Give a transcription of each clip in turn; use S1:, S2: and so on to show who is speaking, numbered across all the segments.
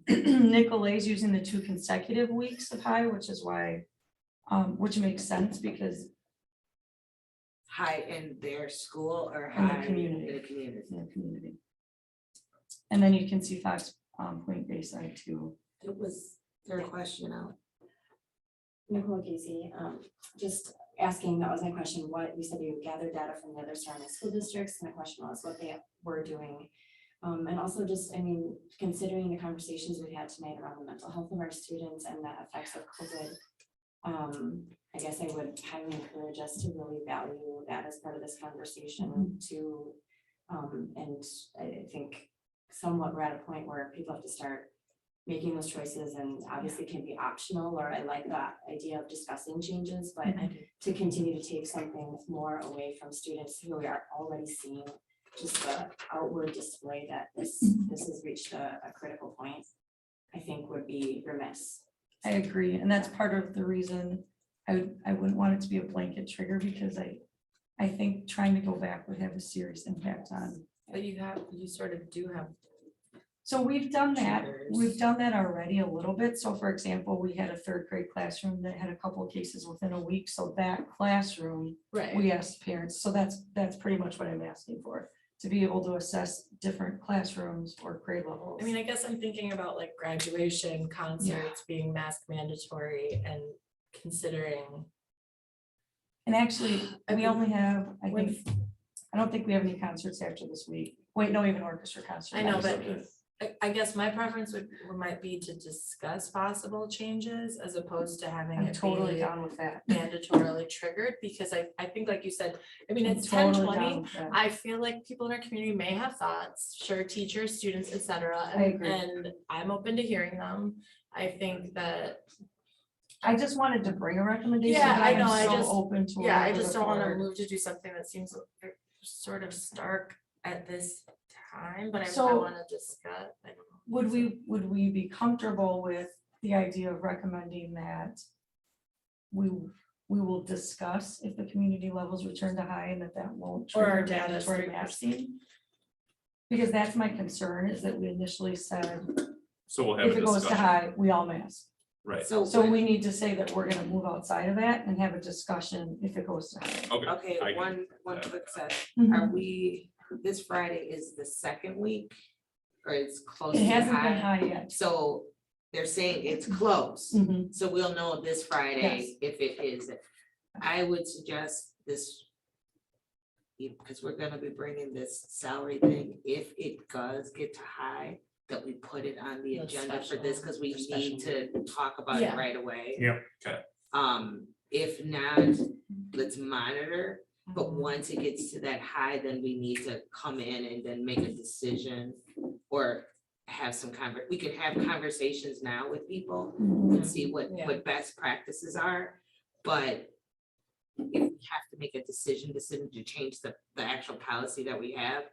S1: Nick Olay's using the two consecutive weeks of high, which is why, um, which makes sense because
S2: high in their school or
S1: In the
S2: high in
S1: community.
S2: the community.
S1: it's in the community. And then you can see Fox, um, Point Bayside too.
S2: It was their question out.
S3: Nicole Casey, um, just asking, that was my question, what, you said you gathered data from the other surrounding school districts, and the question was what they were doing. Um, and also just, I mean, considering the conversations we've had tonight around the mental health of our students and the effects of COVID. Um, I guess I would highly encourage us to really value that as part of this conversation to, um, and I I think somewhat we're at a point where people have to start making those choices and obviously can be optional, or I like that idea of discussing changes, but
S1: Mm-hmm.
S3: to continue to take something more away from students who we are already seeing just the outward display that this,
S1: Mm-hmm.
S3: this has reached a, a critical point, I think would be remiss.
S1: I agree, and that's part of the reason I would, I wouldn't want it to be a blanket trigger because I, I think trying to go back would have a serious impact on.
S4: But you have, you sort of do have,
S1: So we've done that, we've
S4: Triggers.
S1: done that already a little bit. So for example, we had a third grade classroom that had a couple of cases within a week, so that classroom
S4: right,
S1: we asked parents, so that's, that's pretty much what I'm asking for, to be able to assess different classrooms or grade levels.
S4: I mean, I guess I'm thinking about like graduation concerts being mask mandatory and considering.
S1: And actually,
S4: I
S1: we
S4: mean,
S1: only have, I
S4: when-
S1: think, I don't think we have any concerts after this week. Wait, no, we have an orchestra concert.
S4: I know,
S1: next
S4: but
S1: week.
S4: I, I guess my preference would, might be to discuss possible changes as opposed to having
S1: I'm
S4: it
S1: totally
S4: be
S1: down with that.
S4: mandatorily triggered, because I, I think like you said, I mean,
S1: I'm
S4: it's ten
S1: totally
S4: twenty.
S1: down with that.
S4: I feel like people in our community may have thoughts, sure, teachers, students, et cetera,
S1: I
S4: and,
S1: agree.
S4: and I'm open to hearing them. I think that,
S1: I just wanted to bring a recommendation, but
S4: Yeah, I
S1: I am
S4: know, I
S1: so
S4: just-
S1: open to.
S4: yeah, I
S1: whatever
S4: just
S1: the
S4: don't wanna
S1: board-
S4: move to do something that seems uh, sort of stark at this time, but I, I
S1: So-
S4: wanna discuss, I don't know.
S1: Would we, would we be comfortable with the idea of recommending that? We, we will discuss if the community levels return to high and that that won't.
S4: Or our
S1: trigger
S4: data is
S1: mandatory
S4: 3%.
S1: masking? Because that's my concern is that we initially said,
S5: So we'll have
S1: if
S5: a
S1: it goes to
S5: discussion,
S1: high, we all mask.
S5: right?
S2: So,
S1: So we need to say that we're gonna move outside of that and have a discussion if it goes to high.
S5: Okay.
S2: okay,
S5: I can-
S2: one, one
S5: that.
S2: quick set. Are we, this Friday is the second week? Or it's close
S1: It
S2: to
S1: hasn't been
S2: high?
S1: high yet.
S2: So they're saying it's close.
S1: Mhm.
S2: So we'll know this
S1: Yes.
S2: Friday if it is. I would suggest this. Because we're gonna be bringing this salary thing, if it does get to high, that we put it on the
S4: A
S2: agenda for this, because we
S4: special- a
S2: need to talk about it
S4: Yeah.
S2: right away.
S6: Yep.
S5: Okay.
S2: Um, if not, let's monitor, but
S1: Mm-hmm.
S2: once it gets to that high, then we need to come in and then make a decision. Or have some conver, we could have conversations now with people
S1: Mhm.
S2: and see what,
S4: Mm. Yeah.
S2: what best practices are, but if we have to make a decision, decision to change the, the actual policy that we have,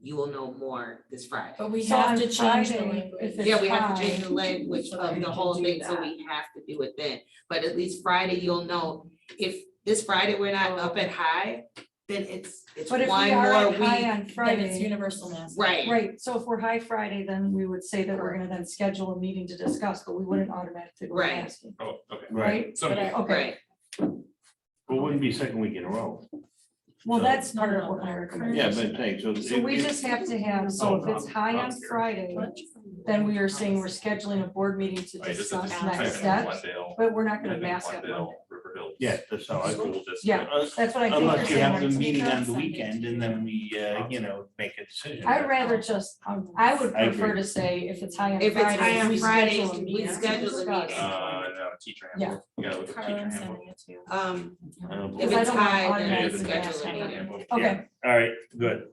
S2: you will know more this Friday.
S4: But we
S1: So
S4: have
S1: on
S4: to change the
S1: Friday, if
S4: language.
S1: it's
S2: Yeah, we have to
S1: high,
S2: change the language
S4: so
S2: of
S4: we
S2: the
S4: can
S2: whole
S4: do
S2: thing, so
S4: that.
S2: we have to do it then, but at least Friday, you'll know, if this Friday we're not up
S4: Oh.
S2: at high, then it's, it's
S1: But
S2: one
S1: if we
S2: more week.
S1: are at high on
S4: Then it's
S1: Friday,
S4: universal mask.
S2: Right,
S1: right, so if we're high Friday, then we would say that we're gonna then schedule a meeting to discuss, but we wouldn't automatically go
S2: Right.
S1: asking,
S5: Oh, okay.
S6: Right.
S1: right?
S5: So,
S4: But I-
S1: Okay,
S2: right,
S6: Well, it wouldn't be second week in a row.
S1: well,
S6: So-
S1: that's part of what my recommendation.
S6: Yeah, but thanks.
S1: So we just have to have, so if it's high on Friday, then we are saying we're scheduling a board meeting to
S5: I just-
S1: discuss
S5: just type in
S1: next steps,
S5: Glendale,
S1: but we're not gonna
S5: and then
S1: mask up.
S5: Glendale, River Hills.
S6: Yeah, that's how I
S5: School
S6: feel.
S5: district.
S1: Yeah.
S6: Uh,
S1: That's what I think.
S6: Unless
S1: you're
S6: you have the
S1: saying.
S6: meeting on the
S4: Sunday.
S6: weekend and then we, uh, you know, make a decision.
S1: I'd rather just, um, I would
S6: I
S1: prefer
S6: agree.
S1: to say if it's high on
S2: If
S1: Friday.
S2: it's high on
S1: we
S2: Friday,
S1: schedule a
S2: we
S1: meeting to
S2: schedule a
S1: discuss.
S2: meeting.
S5: Uh, no, teacher
S1: Yeah.
S5: handbook. You gotta look at
S4: Carla,
S5: teacher
S4: I'm
S5: handbook.
S4: sending it to you.
S2: um,
S6: I don't
S2: if
S6: believe-
S1: I
S2: it's
S1: don't want
S2: high,
S5: Yeah,
S2: then
S1: automatic
S5: it's
S2: it's
S5: a
S1: mask
S2: scheduled.
S1: on
S5: teacher
S1: it.
S5: handbook.
S1: Okay,
S6: All right, good.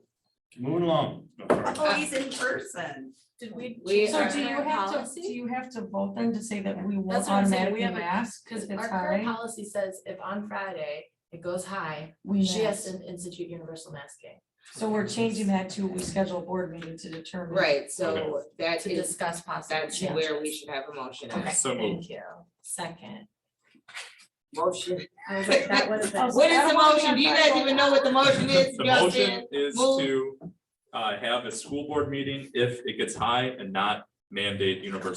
S6: Moving along. No, sorry.
S4: Oh,
S2: he's in person.
S4: Did we?
S2: We
S1: so
S2: are-
S1: do you have to,
S4: Policy?
S1: do you have to vote then to say that we will
S4: That's what I'm saying,
S1: automatically
S4: we have a-
S1: mask
S4: Because
S1: if it's
S4: our current
S1: high?
S4: policy says if on Friday it goes high,
S1: We
S4: she has
S1: mask.
S4: to institute universal masking
S1: So we're changing that to, we schedule a board meeting to determine.
S2: Right, so that
S4: to
S2: is,
S4: discuss possible
S2: that's where we
S4: changes.
S2: should have a motion. at.
S4: Okay,
S5: So moved.
S4: thank you. Second.
S2: Motion.
S4: I was like, that was a-
S2: What
S1: I
S2: is
S1: don't wanna
S2: the motion?
S1: have
S2: Do you
S1: that
S2: guys even know what the motion is,
S5: The
S2: Justin?
S5: motion is
S2: move.
S5: to uh, have a school board meeting if it gets high and not mandate universal